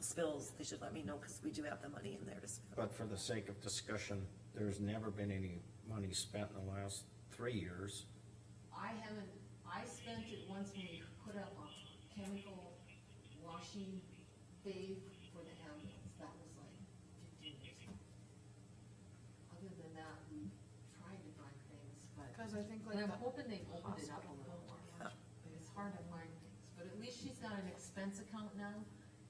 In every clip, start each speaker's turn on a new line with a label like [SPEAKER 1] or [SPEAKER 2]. [SPEAKER 1] spills, they should let me know, cause we do have the money in there to spill.
[SPEAKER 2] But for the sake of discussion, there's never been any money spent in the last three years.
[SPEAKER 3] I haven't, I spent it once when we put up a chemical washing bay for the ambulance, that was like fifteen years ago. Other than that, we tried to find things, but,
[SPEAKER 4] Cause I think like
[SPEAKER 3] and I'm
[SPEAKER 4] the
[SPEAKER 3] hoping they've opened it up a little more.
[SPEAKER 1] Yeah.
[SPEAKER 3] But it's hard to find things, but at least she's got an expense account now,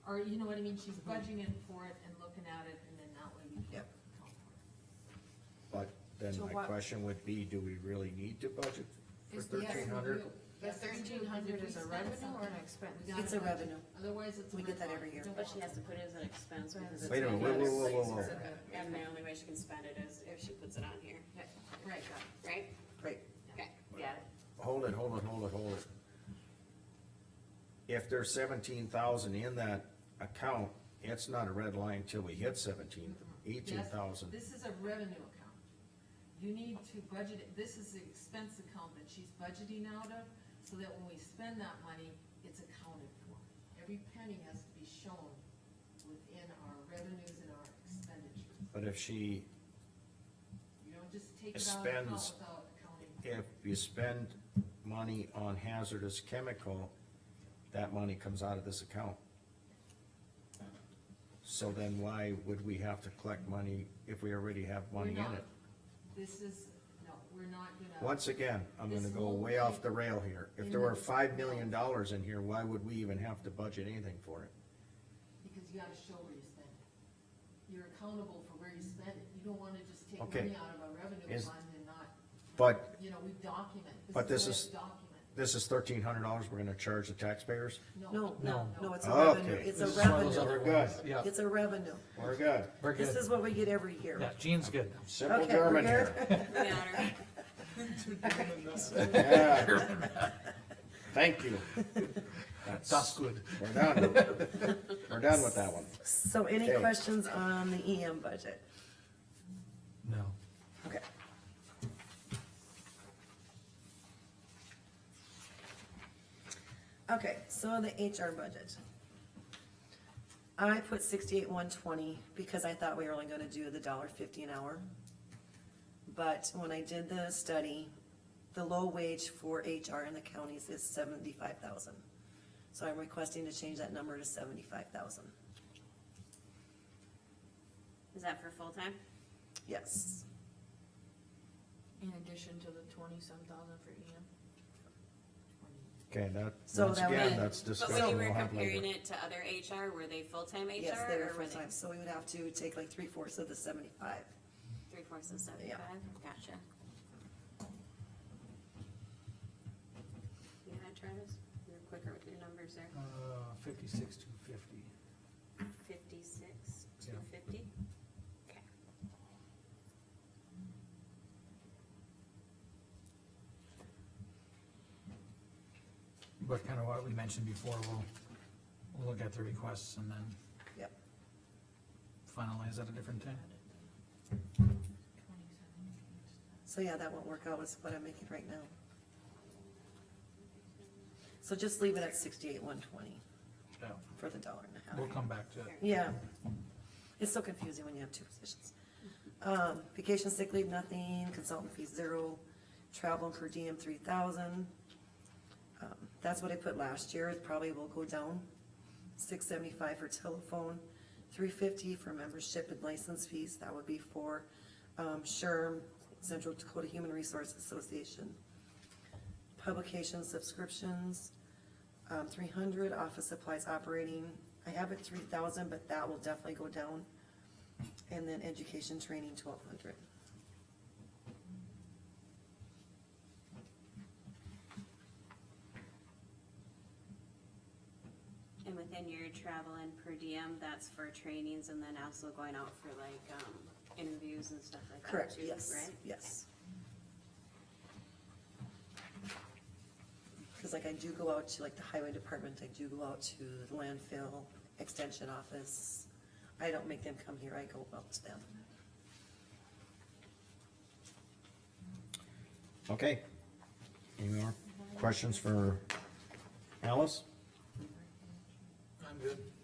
[SPEAKER 3] or you know what I mean, she's
[SPEAKER 4] Mm-hmm.
[SPEAKER 3] budging in for it and looking at it, and then that way we can
[SPEAKER 1] Yep.
[SPEAKER 3] account for it.
[SPEAKER 2] But then
[SPEAKER 4] So
[SPEAKER 2] my
[SPEAKER 4] what-
[SPEAKER 2] question would be, do we really need to budget for
[SPEAKER 3] Is the- yes,
[SPEAKER 2] thirteen hundred?
[SPEAKER 3] we do.
[SPEAKER 4] The
[SPEAKER 3] Yes, we do.
[SPEAKER 4] thirteen hundred
[SPEAKER 3] If
[SPEAKER 4] is
[SPEAKER 3] we
[SPEAKER 4] a
[SPEAKER 3] spend
[SPEAKER 4] revenue or an
[SPEAKER 3] something,
[SPEAKER 4] expense?
[SPEAKER 3] we gotta
[SPEAKER 1] It's a
[SPEAKER 3] budget.
[SPEAKER 1] revenue.
[SPEAKER 3] Otherwise, it's. a
[SPEAKER 1] We get
[SPEAKER 3] red
[SPEAKER 1] that
[SPEAKER 3] line.
[SPEAKER 1] every year.
[SPEAKER 3] Don't
[SPEAKER 5] But she
[SPEAKER 3] want
[SPEAKER 5] has to
[SPEAKER 3] it.
[SPEAKER 5] put it as an expense because it's.
[SPEAKER 2] Wait a minute, whoa, whoa, whoa, whoa, whoa.
[SPEAKER 5] And the only way she can spend it is if she puts it on here,
[SPEAKER 3] Right,
[SPEAKER 5] right?
[SPEAKER 1] Right,
[SPEAKER 5] Okay, got it.
[SPEAKER 2] Hold it, hold it, hold it, hold it. If there's seventeen thousand in that account, it's not a red line till we hit seventeen, eighteen
[SPEAKER 3] Yes,
[SPEAKER 2] thousand.
[SPEAKER 3] This is a revenue account. You need to budget, it. this is the expense account that she's budgeting out of, so that when we spend that money, it's accounted for. Every penny has to be shown within our revenues and our expenditures.
[SPEAKER 2] But if she,
[SPEAKER 3] You don't just take it out of account
[SPEAKER 2] Spends.
[SPEAKER 3] without accounting.
[SPEAKER 2] if you spend money on hazardous chemical, that money comes out of this account. So then why would we have to collect money if we already have money in
[SPEAKER 3] We're not-
[SPEAKER 2] it?
[SPEAKER 3] This is, no, we're not gonna.
[SPEAKER 2] Once again, I'm gonna go way off the rail here. If there were five million dollars in here, why would we even have to budget anything for it?
[SPEAKER 3] Because you gotta show where you spend it. You're accountable for where you spend it. You don't wanna just take
[SPEAKER 2] Okay.
[SPEAKER 3] money out of a revenue
[SPEAKER 2] Is-
[SPEAKER 3] fund and not,
[SPEAKER 2] But
[SPEAKER 3] you know, we document.
[SPEAKER 2] But this
[SPEAKER 3] what
[SPEAKER 2] is-
[SPEAKER 3] we Document.
[SPEAKER 2] this is thirteen hundred dollars we're gonna charge the taxpayers?
[SPEAKER 1] no, no, no, it's a
[SPEAKER 2] Oh, Okay.
[SPEAKER 1] revenue, it's a
[SPEAKER 6] This is one of those
[SPEAKER 1] revenue,
[SPEAKER 6] other ones.
[SPEAKER 2] Good.
[SPEAKER 6] Yeah,
[SPEAKER 1] it's a revenue.
[SPEAKER 2] We're good.
[SPEAKER 6] we're
[SPEAKER 1] This
[SPEAKER 6] good.
[SPEAKER 1] is what we get every
[SPEAKER 6] Yeah,
[SPEAKER 1] year.
[SPEAKER 6] Jean's good.
[SPEAKER 2] Simple
[SPEAKER 1] Okay,
[SPEAKER 2] German
[SPEAKER 1] we're
[SPEAKER 2] here.
[SPEAKER 1] good.
[SPEAKER 5] We got her.
[SPEAKER 2] Yeah. Thank you.
[SPEAKER 6] That's
[SPEAKER 2] That's,
[SPEAKER 6] good.
[SPEAKER 2] we're done. We're done with that one.
[SPEAKER 1] So any
[SPEAKER 2] Okay.
[SPEAKER 1] questions on the EM budget?
[SPEAKER 6] No.
[SPEAKER 1] Okay. Okay, so the HR budget. I put sixty-eight one twenty because I thought we were only gonna do the dollar fifty an hour. But when I did the study, the low wage for HR in the counties is seventy-five thousand. So I'm requesting to change that number to seventy-five thousand,
[SPEAKER 5] Is that for full-time?
[SPEAKER 1] yes.
[SPEAKER 4] In addition to the twenty-some thousand for E EM?
[SPEAKER 2] Okay, that,
[SPEAKER 1] So
[SPEAKER 2] once
[SPEAKER 1] that
[SPEAKER 2] again,
[SPEAKER 1] would-
[SPEAKER 2] that's
[SPEAKER 5] But when
[SPEAKER 2] discussion
[SPEAKER 5] you
[SPEAKER 2] we'll
[SPEAKER 5] were
[SPEAKER 2] have
[SPEAKER 5] comparing
[SPEAKER 2] later.
[SPEAKER 5] it to other HR, were they full-time HR?
[SPEAKER 1] Yes, they were
[SPEAKER 5] or
[SPEAKER 1] full-time, so we would have to take like three-fourths of the seventy-five.
[SPEAKER 5] Three fourths of seventy-five, gotcha. You had Travis, you're quicker with your numbers there,
[SPEAKER 6] Uh, fifty-six, two fifty.
[SPEAKER 5] fifty-six,
[SPEAKER 6] Yeah.
[SPEAKER 5] two fifty? Okay.
[SPEAKER 6] But kind of what we mentioned before, we'll, we'll look at the requests and then
[SPEAKER 1] Yep.
[SPEAKER 6] finalize at a different time.
[SPEAKER 1] So yeah, that won't work out with what I'm making right now. So just leave it at sixty-eight, one twenty
[SPEAKER 6] Yeah,
[SPEAKER 1] for the dollar and a
[SPEAKER 6] we'll
[SPEAKER 1] half.
[SPEAKER 6] come back to it.
[SPEAKER 1] Yeah. It's so confusing when you have two positions. Um, vacation sick leave, nothing, consultant fees, zero, travel per diem, three thousand. Um, That's what I put last year, it probably will go down. Six seventy-five for telephone, three fifty for membership and license fees, that would be for, um, SHRM, Central Dakota Human Resource Association. Publication subscriptions, um, three hundred, office supplies operating, I have it three thousand, but that will definitely go down. And then education training, twelve hundred.
[SPEAKER 5] And within your travel and per diem, that's for trainings and then also going out for like, um, interviews and stuff like that too, right?
[SPEAKER 1] Correct, yes, yes. Cause like I do go out to like the highway department, I do go out to the landfill, extension office. I don't make them come here, I go out to them.
[SPEAKER 2] Okay. Any more questions for Alice?
[SPEAKER 6] I'm good.